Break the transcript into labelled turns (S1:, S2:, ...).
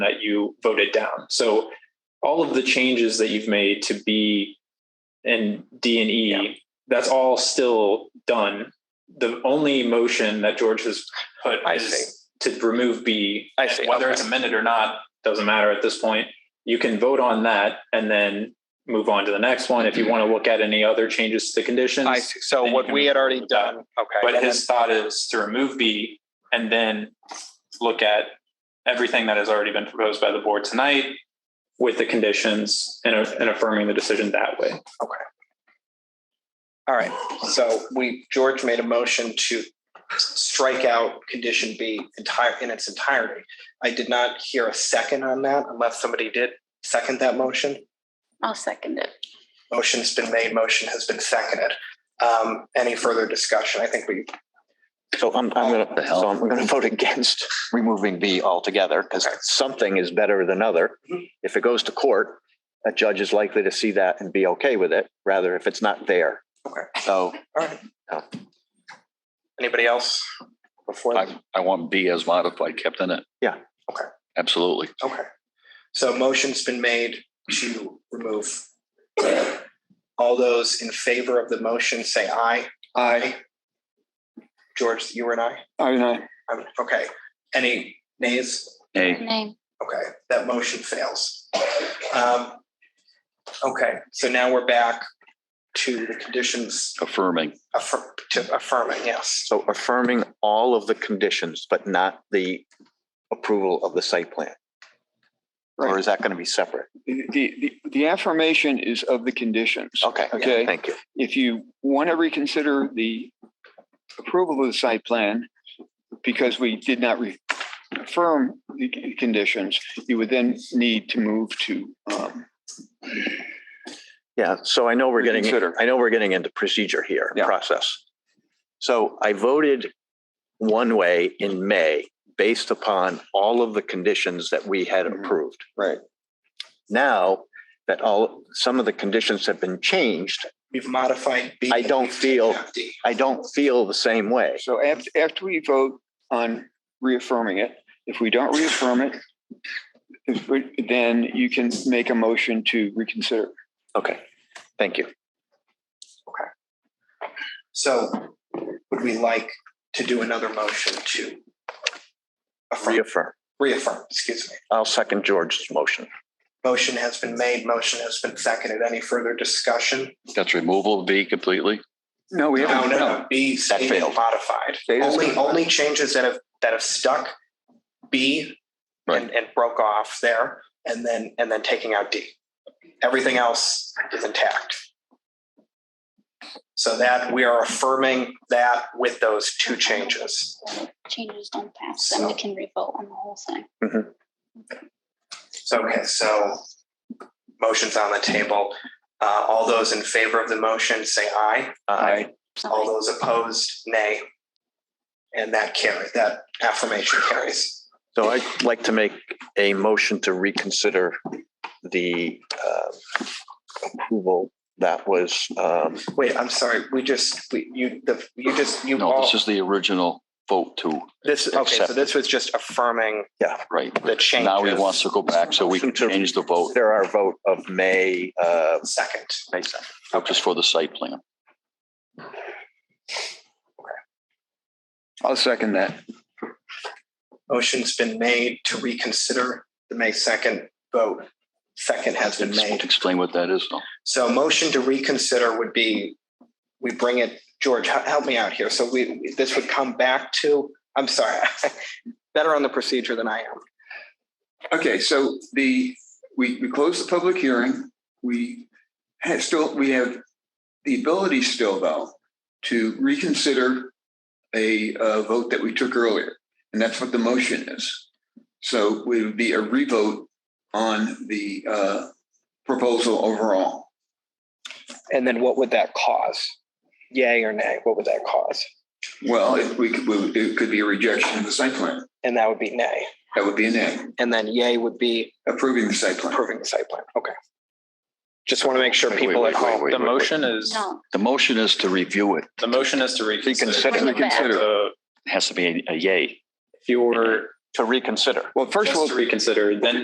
S1: that you voted down. So all of the changes that you've made to B and D and E,
S2: Yeah.
S1: that's all still done. The only motion that George has put
S2: I
S1: is to remove B.
S2: I
S1: And
S2: see.
S1: Whether
S2: Okay.
S1: it's amended or not, doesn't matter at this point. You can vote on that and then move on to the next one. If you want to look at any other changes to the conditions.
S2: I see. So
S1: then you
S2: what
S1: can
S2: we had already
S1: move that.
S2: done, okay.
S1: But
S2: and
S1: his thought is to remove B and then look at everything that has already been proposed by the board tonight with the conditions and, and affirming the decision that way.
S2: then- all right. So we, George made a motion to strike out condition B entire, in its entirety. I did not hear a second on that unless somebody did second that motion.
S3: I'll second it.
S2: Motion's been made, motion has been seconded. Um, any further discussion? I think we,
S4: So I'm, I'm gonna, so I'm gonna vote against Oh, removing B altogether because
S2: Okay.
S4: something is better than other. If it goes to court, a judge is likely to see that and be okay with it, rather if it's not there.
S2: Okay.
S4: So
S2: anybody else before?
S5: I, I want B as modified kept in it.
S4: Yeah.
S2: Okay.
S5: Absolutely.
S2: Okay. So a motion's been made to remove. All those in favor of the motion, say aye. Aye. George, you and I? Aye, aye. Okay. Any nays?
S5: A,
S3: Name.
S2: Okay, that motion fails. Um, Okay, so now we're back to the conditions
S5: affirming.
S2: affir- to affirming, yes.
S4: So affirming all of the conditions, but not the approval of the site plan. Or is that gonna be separate?
S6: The, the, the affirmation is of the conditions.
S4: Okay,
S6: Okay.
S4: thank you.
S6: If you want to reconsider the approval of the site plan, because we did not re- affirm the c- conditions, you would then need to move to, um,
S4: Yeah, so I know we're getting,
S6: Reconsider.
S4: I know we're getting into procedure here,
S6: Yeah.
S4: process. So I voted one way in May based upon all of the conditions that we had
S6: Mhm.
S4: approved.
S6: Right.
S4: Now that all, some of the conditions have been changed,
S2: We've modified B.
S4: I don't feel-
S2: D.
S4: I don't feel the same way.
S6: so after, after we vote on reaffirming it, if we don't reaffirm it, if we- then you can make a motion to reconsider.
S4: Okay, thank you.
S2: So would we like to do another motion to affirm,
S4: Reaffirm.
S2: reaffirm, excuse me?
S4: I'll second George's motion.
S2: Motion has been made, motion has been seconded. Any further discussion?
S5: That's removal of B completely.
S6: No, we
S2: No, no,
S6: haven't.
S2: no. B stated
S4: failed.
S2: modified.
S6: Stated
S2: Only,
S6: modified.
S2: only changes that have, that have stuck, B and, and broke off there, and then, and then taking out D. Everything else is intact. So that, we are affirming that with those two changes.
S3: Changes don't pass, then we can revote on the whole thing.
S2: So, okay, so motion's on the table. Uh, all those in favor of the motion, say aye.
S4: Aye.
S2: All those opposed, nay. And that carry, that affirmation carries.
S4: So I'd like to make a motion to reconsider the uh, approval that was, um,
S2: Wait, I'm sorry, we just, we, you, the, you just, you
S5: No,
S2: all,
S5: this is the original vote too,
S2: this, okay, so
S4: accepted.
S2: this was just affirming
S5: right?
S2: the changes.
S5: Now he wants to go back so we can
S4: Changes.
S5: change the vote
S4: there our vote of May, uh,
S2: Second.
S4: May 7th.
S5: just for the site plan.
S6: I'll second that.
S2: Motion's been made to reconsider the May second vote. Second has been made.
S5: Explain what that is now.
S2: So a motion to reconsider would be, we bring it, George, he- help me out here. So we, this would come back to, I'm sorry, better on the procedure than I am.
S6: Okay, so the, we, we closed the public hearing. We have still, we have the ability still though to reconsider a uh, vote that we took earlier. And that's what the motion is. So it would be a revote on the uh, proposal overall.
S2: And then what would that cause? Yay or nay, what would that cause?
S6: Well, if we could, we- it could be a rejection of the site plan.
S2: And that would be nay.
S6: That would be a nay,
S2: And then yay would be
S6: approving the site plan.
S2: approving the site plan. Okay. Just want to make sure
S5: Wait, wait,
S2: people at
S5: wait, wait,
S2: home.
S5: wait,
S1: The
S5: wait.
S1: motion is,
S3: No,
S5: The motion is to review it.
S1: the motion is to reconsider.
S3: Reconsider.
S1: So
S3: Reconsider.
S5: It Has to be a yay.
S1: If you're
S4: to reconsider.
S5: Well, first of all,
S1: Just to reconsider, then